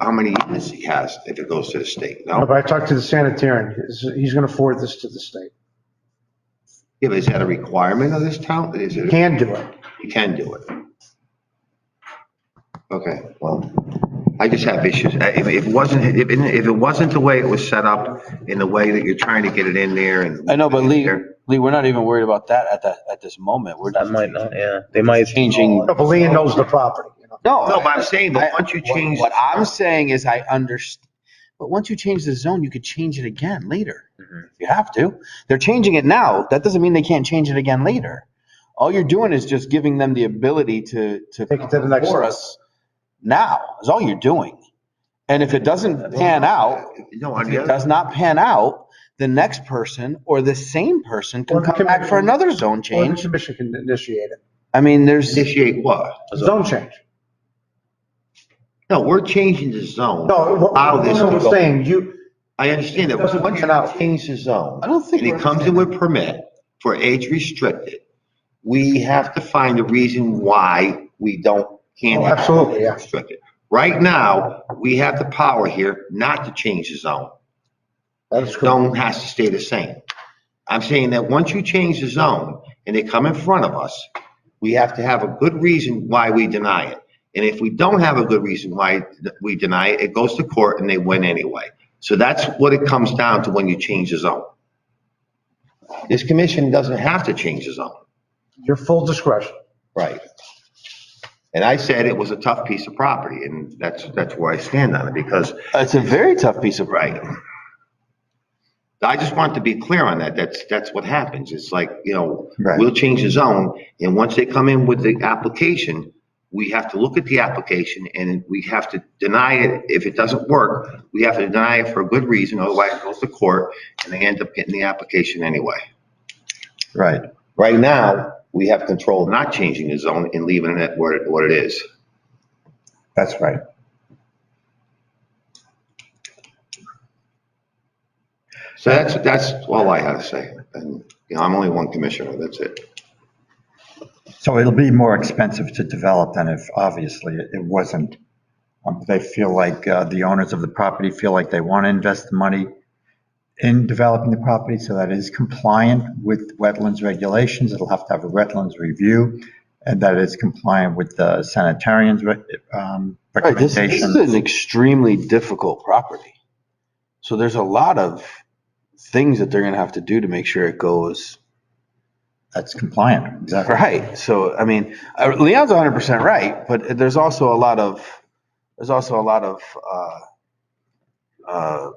how many years he has if it goes to the state, no? But I talked to the sanitarian, he's, he's going to forward this to the state. Yeah, but is that a requirement of this town? Is He it, Can do it. you can do it? Okay, well, I just have issues. Uh, If if it wasn't, if, it- if it wasn't the way it was set up in the way that you're trying to get it in there and. I know, but Lee, Lee, we're not even worried about that at that, at this moment. We're That just might not, yeah. They might. changing. But Lean knows the property, you know. No. No, but I'm saying, I- but once you change. What I'm saying is I understand, but once you change the zone, you could change it again later. Mm-hmm. Mhm. You have to. They're changing it now. That doesn't mean they can't change it again later. All you're doing is just giving them the ability to, to. Take it to the next For level. us now is all you're doing. And if it doesn't pan out, No, if on the it other, does not pan out, the next person or the same person Or can the come back for commission. another zone Or the change. commission can initiate it. I mean, there's, initiate what? Zone change. No, we're changing the zone. No, what Allow this to I'm go. saying, you, I understand that, Doesn't once pan out. you change the zone. I don't think. And we're- it comes in with permit for age restricted. We have to find a reason why we don't, can't. Oh, have absolutely, yeah. age restricted. Right now, we have the power here not to change the zone. that's The correct. Zone has to stay the same. I'm saying that once you change the zone and they come in front of us, we have to have a good reason why we deny it. And if we don't have a good reason why we deny it, it goes to court and they win anyway. So that's what it comes down to when you change the zone. This commission doesn't have to change the zone. Your full discretion. Right. And I said it was a tough piece of property and that's, that's where I stand on it because It's a very tough piece of. Right. I just want to be clear on that. That's, that's what happens. It's like, you know, Right. we'll change the zone. And once they come in with the application, we have to look at the application and we have to deny it. If it doesn't work, we have to deny it for a good reason. Otherwise it goes to court and they end up getting the application anyway. Right. Right now, we have control of not changing the zone and leaving it where, it- what it is. That's right. So that's, that's all I have to say. And, you know, I'm only one commissioner. That's it. So it'll be more expensive to develop than if, obviously, it it wasn't. Um, They feel like, uh, the owners of the property feel like they want to invest the money in developing the property, so that it is compliant with wetlands regulations. It'll have to have a wetlands review, and that it's compliant with the sanitarians' re- um, Right, this, this is recommendations. an extremely difficult property. So there's a lot of things that they're gonna have to do to make sure it goes That's compliant, exactly. right. So, I mean, uh, Leon's hundred percent right, but there's also a lot of, there's also a lot of, uh, uh,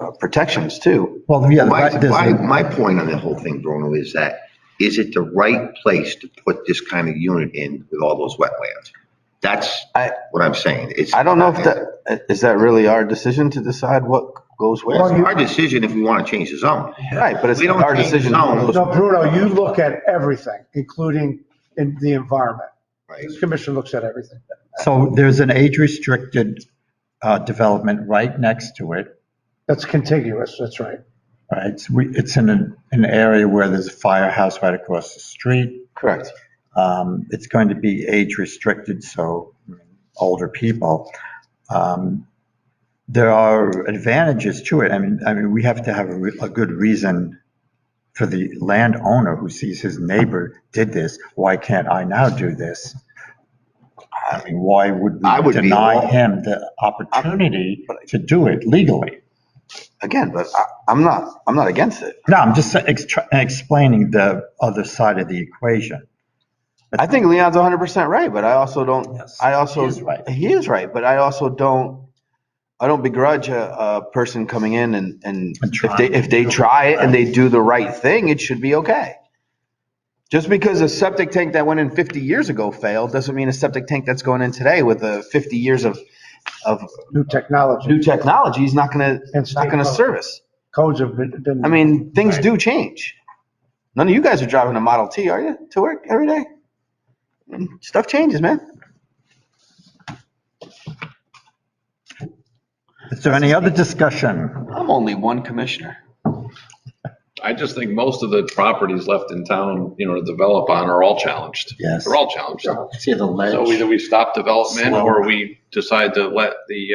uh, protections too. Well, yeah, My, there's my, a- my point on the whole thing, Bruno, is that, is it the right place to put this kind of unit in with all those wetlands? That's I- what I'm saying. It's. I don't know if that, uh, is that really our decision to decide what goes Well, where? Our decision if we want to change the zone. Right, but it's We don't our change decision. zones. who goes No, Bruno, you look at everything, including in the environment. Right. This commission looks at everything. so there's an age-restricted uh, development right next to it. That's contiguous, that's right. Right, it's, we, it's in an, an area where there's a firehouse right across the street. Correct. Um, it's going to be age restricted, so older people. Um, there are advantages to it. I mean, I mean, we have to have a, re- a good reason for the landowner who sees his neighbor did this. Why can't I now do this? I mean, why would I we would be all- deny him the opportunity to do it legally? Again, but I, I'm not, I'm not against it. No, I'm just ex- tr- explaining the other side of the equation. I think Leon's hundred percent right, but I also don't, Yes, I also. he is right. He is right, but I also don't, I don't begrudge a, a person coming in and, and And if they, trying. if they try it and they do the right thing, it should be okay. Just because a septic tank that went in fifty years ago failed, doesn't mean a septic tank that's going in today with the fifty years of, of New technology new technology is not gonna, and it's not gonna service. codes have been. been- I mean, things do change. None of you guys are driving a Model T, are you, to work every day? Mm, Stuff changes, man. Is there any other discussion? I'm only one commissioner. I just think most of the properties left in town, you know, to develop on are all challenged. Yes. They're all challenged. See the ledge? So either we stop development or we decide to let the, uh,